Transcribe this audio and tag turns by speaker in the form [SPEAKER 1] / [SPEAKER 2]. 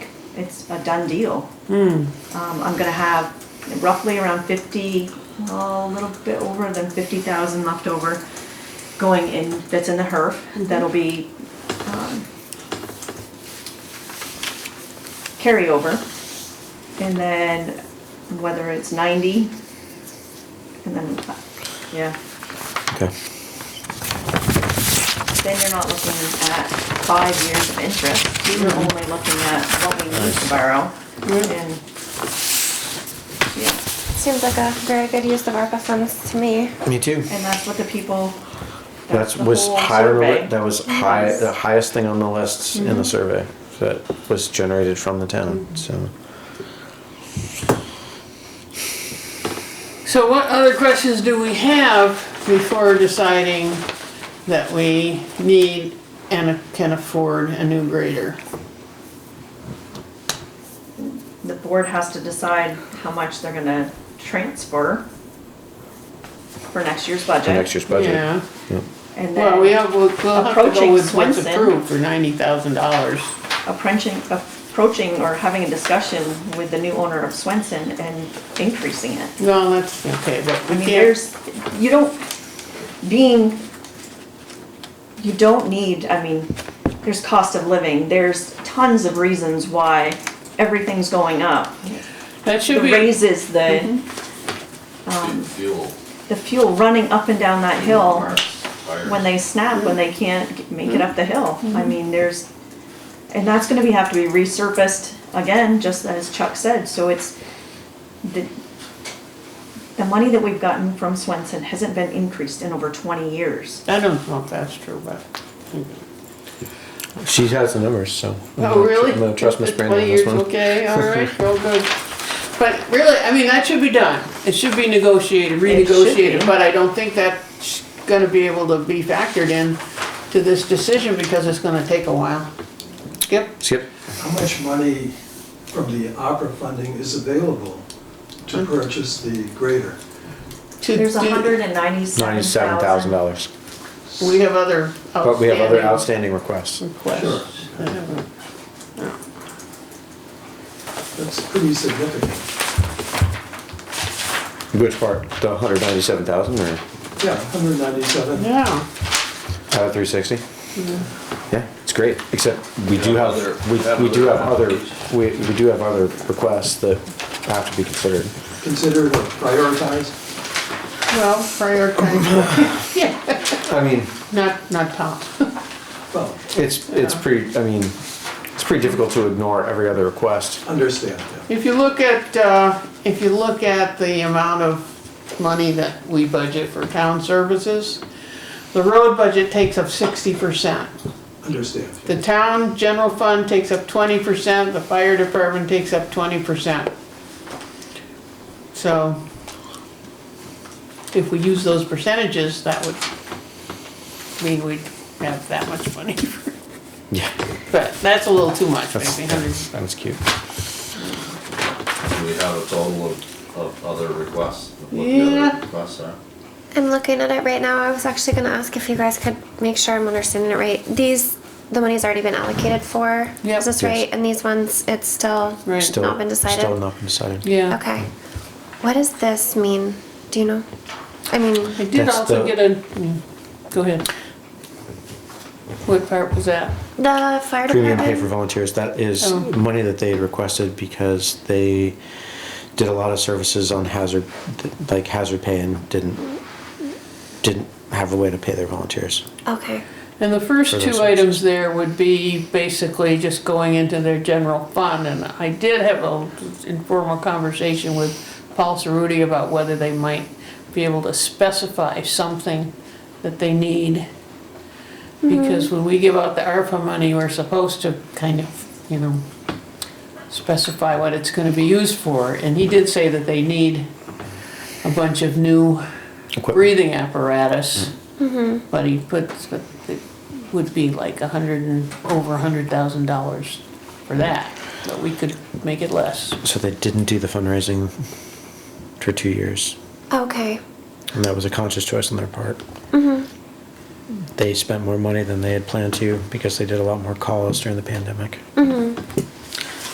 [SPEAKER 1] it's a done deal. Um, I'm gonna have roughly around fifty, a little bit over than fifty thousand left over going in, that's in the HERF, that'll be, um, carryover. And then whether it's ninety, and then, yeah,
[SPEAKER 2] Okay.
[SPEAKER 1] then you're not looking at five years of interest.
[SPEAKER 2] Mm-hmm.
[SPEAKER 1] You're only looking at what we need to borrow and, yeah.
[SPEAKER 3] Seems like a very good use of ARPA funds to me.
[SPEAKER 2] Me too.
[SPEAKER 1] And that's what the people.
[SPEAKER 2] That
[SPEAKER 1] the
[SPEAKER 2] was
[SPEAKER 1] whole
[SPEAKER 2] higher.
[SPEAKER 1] survey.
[SPEAKER 2] That was high. The highest thing on the list in the survey that was generated from the town. So
[SPEAKER 4] So what other questions do we have before deciding that we need and can afford a new grader?
[SPEAKER 1] The board has to decide how much they're gonna transfer for next year's
[SPEAKER 2] for next
[SPEAKER 1] budget.
[SPEAKER 2] year's budget.
[SPEAKER 4] Yeah,
[SPEAKER 1] And
[SPEAKER 4] well, we
[SPEAKER 1] then
[SPEAKER 4] have, we'll we'll have to
[SPEAKER 1] Approaching
[SPEAKER 4] go with what's
[SPEAKER 1] Swenson.
[SPEAKER 4] approved for ninety thousand dollars.
[SPEAKER 1] approaching, approaching or having a discussion with the new owner of Swenson and increasing it.
[SPEAKER 4] No, that's, okay, but
[SPEAKER 1] I
[SPEAKER 4] we
[SPEAKER 1] mean,
[SPEAKER 4] can't,
[SPEAKER 1] there's, you don't, being, you don't need, I mean, there's cost of living, there's tons of reasons why everything's going up.
[SPEAKER 4] that
[SPEAKER 1] The
[SPEAKER 4] should be,
[SPEAKER 1] raises, the, Um,
[SPEAKER 5] Didn't feel
[SPEAKER 1] the fuel running up and down that hill,
[SPEAKER 5] fire.
[SPEAKER 1] when they snap, when they can't g- make it up the hill. I mean, there's, and that's gonna be, have to be resurfaced again, just as Chuck said, so it's, the, the money that we've gotten from Swenson hasn't been increased in over twenty years.
[SPEAKER 4] I don't know if that's true, but.
[SPEAKER 2] She has the numbers, so. I'm
[SPEAKER 4] Oh,
[SPEAKER 2] gonna-
[SPEAKER 4] really?
[SPEAKER 2] I'm gonna trust Miss
[SPEAKER 4] After
[SPEAKER 2] Brandon on
[SPEAKER 4] 20
[SPEAKER 2] this
[SPEAKER 4] years,
[SPEAKER 2] one.
[SPEAKER 4] Okay, all right, well, good. But really, I mean, that should be done. It should be negotiated,
[SPEAKER 1] It should
[SPEAKER 4] renegotiated,
[SPEAKER 1] be.
[SPEAKER 4] but I don't think that's gonna be able to be factored in to this decision because it's gonna take a while. Yep,
[SPEAKER 2] Skip.
[SPEAKER 6] How much money from the opera funding is available to purchase the grader?
[SPEAKER 4] to
[SPEAKER 1] There's a
[SPEAKER 4] do,
[SPEAKER 1] hundred and ninety-seven
[SPEAKER 2] Ninety-seven
[SPEAKER 1] thousand.
[SPEAKER 2] thousand dollars.
[SPEAKER 4] we have other
[SPEAKER 2] But we have other outstanding
[SPEAKER 4] outstanding
[SPEAKER 2] requests.
[SPEAKER 6] Sure.
[SPEAKER 4] requests. I haven't-
[SPEAKER 6] That's pretty significant.
[SPEAKER 2] Which part? The hundred ninety-seven thousand or
[SPEAKER 6] Yeah, 197.
[SPEAKER 4] Yeah,
[SPEAKER 2] out of three sixty? Yeah, it's great, except we do
[SPEAKER 5] have
[SPEAKER 2] have,
[SPEAKER 5] other-
[SPEAKER 2] we, we do have
[SPEAKER 5] have other
[SPEAKER 2] other, we, we do have other requests that have to be considered.
[SPEAKER 6] Consider it prioritized.
[SPEAKER 4] well, prioritize, yeah,
[SPEAKER 2] I mean,
[SPEAKER 4] not, not top.
[SPEAKER 6] Well,
[SPEAKER 2] it's, it's pretty, I mean, it's pretty difficult to ignore every other request.
[SPEAKER 6] understand, yeah.
[SPEAKER 4] If you look at, uh, if you look at the amount of money that we budget for town services, the road budget takes up sixty percent.
[SPEAKER 6] understand.
[SPEAKER 4] The town general fund takes up twenty percent, the fire department takes up twenty percent. So if we use those percentages, that would mean we'd have that much money.
[SPEAKER 2] Yeah,
[SPEAKER 4] But that's a little too much,
[SPEAKER 2] that's,
[SPEAKER 4] maybe hundred.
[SPEAKER 2] that's that's cute.
[SPEAKER 5] We have a total of, of other requests. of what the
[SPEAKER 4] Yeah.
[SPEAKER 5] other Requests are.
[SPEAKER 3] I'm looking at it right now. I was actually gonna ask if you guys could make sure I'm understanding it right. These, the money's already been allocated for,
[SPEAKER 4] Yep.
[SPEAKER 3] is this
[SPEAKER 2] Yes.
[SPEAKER 3] right? And these ones, it's still
[SPEAKER 4] Right.
[SPEAKER 2] Still,
[SPEAKER 3] not been decided?
[SPEAKER 2] Still not been decided.
[SPEAKER 4] Yeah.
[SPEAKER 3] Okay. What does this mean? Do you know? I mean,
[SPEAKER 4] I did
[SPEAKER 2] That's
[SPEAKER 4] also
[SPEAKER 2] the-
[SPEAKER 4] get a, mm, go ahead. What part was that?
[SPEAKER 3] the fire
[SPEAKER 2] Premium pay for
[SPEAKER 3] department?
[SPEAKER 2] volunteers, that is
[SPEAKER 4] Oh.
[SPEAKER 2] money that they had requested because they did a lot of services on hazard, like hazard pay and didn't, didn't have a way to pay their volunteers.
[SPEAKER 3] Okay,
[SPEAKER 4] And the
[SPEAKER 2] For
[SPEAKER 4] first
[SPEAKER 2] those
[SPEAKER 4] two
[SPEAKER 2] ones.
[SPEAKER 4] items there would be basically just going into their general fund. And I did have a informal conversation with Paul Cerruti about whether they might be able to specify something that they need. Because when we give out the ARPA money, we're supposed to kind of, you know, specify what it's gonna be used for. And he did say that they need a bunch of new
[SPEAKER 2] Equipment.
[SPEAKER 4] breathing apparatus. But he puts, but it would be like a hundred and, over a hundred thousand dollars for that, but we could make it less.
[SPEAKER 2] So they didn't do the fundraising for two years,
[SPEAKER 3] okay.
[SPEAKER 2] and that was a conscious choice on their part. They spent more money than they had planned to because they did a lot more calls during the pandemic.